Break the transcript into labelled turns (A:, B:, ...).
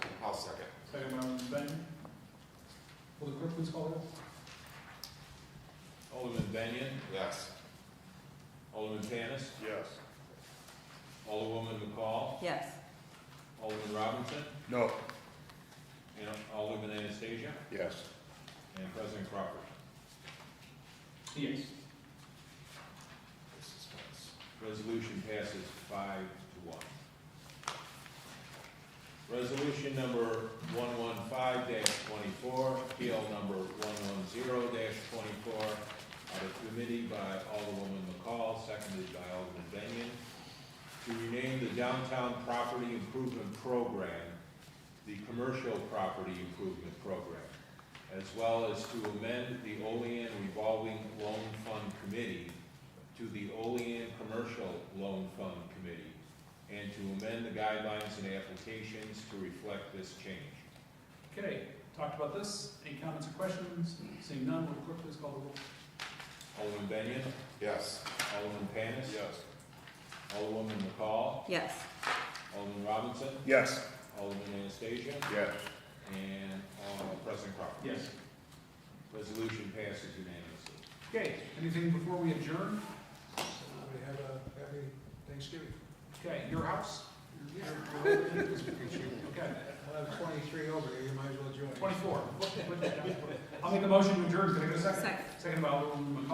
A: um, Will the clerk please call the roll?
B: Alderman Benyon,
C: Yes.
B: Alderman Panis,
C: Yes.
B: Alderwoman McCall,
D: Yes.
B: Alderman Robinson,
C: No.
B: and Alderman Anastasia,
C: Yes.
B: and President Crawford.
A: Yes.
B: Resolution passes five to one. Resolution number one one five twenty-four, appeal number one one zero twenty-four, out of committee by Alderwoman McCall, seconded by Alderman Benyon, to rename the downtown property improvement program, the commercial property improvement program, as well as to amend the Olean revolving loan fund committee to the Olean Commercial Loan Fund Committee and to amend the guidelines and applications to reflect this change.
A: Okay, talked about this. Any comments or questions? Seeing none, will the clerk please call the roll?
B: Alderman Benyon,
C: Yes.
B: Alderman Panis. Alderwoman McCall,
D: Yes.
B: Alderman Robinson,
C: Yes.
B: Alderman Anastasia,
C: Yes.
B: and uh, President Crawford.
A: Yes.
B: Resolution passes unanimously.
A: Okay, anything before we adjourn? We have a happy Thanksgiving. Okay, your house? Your- your- Okay,
E: Well, I'm twenty-three over here, you might as well join.
A: twenty-four. I'll make a motion to adjourn. Can I get a second?
D: Second.
A: Second by Alderman McCall.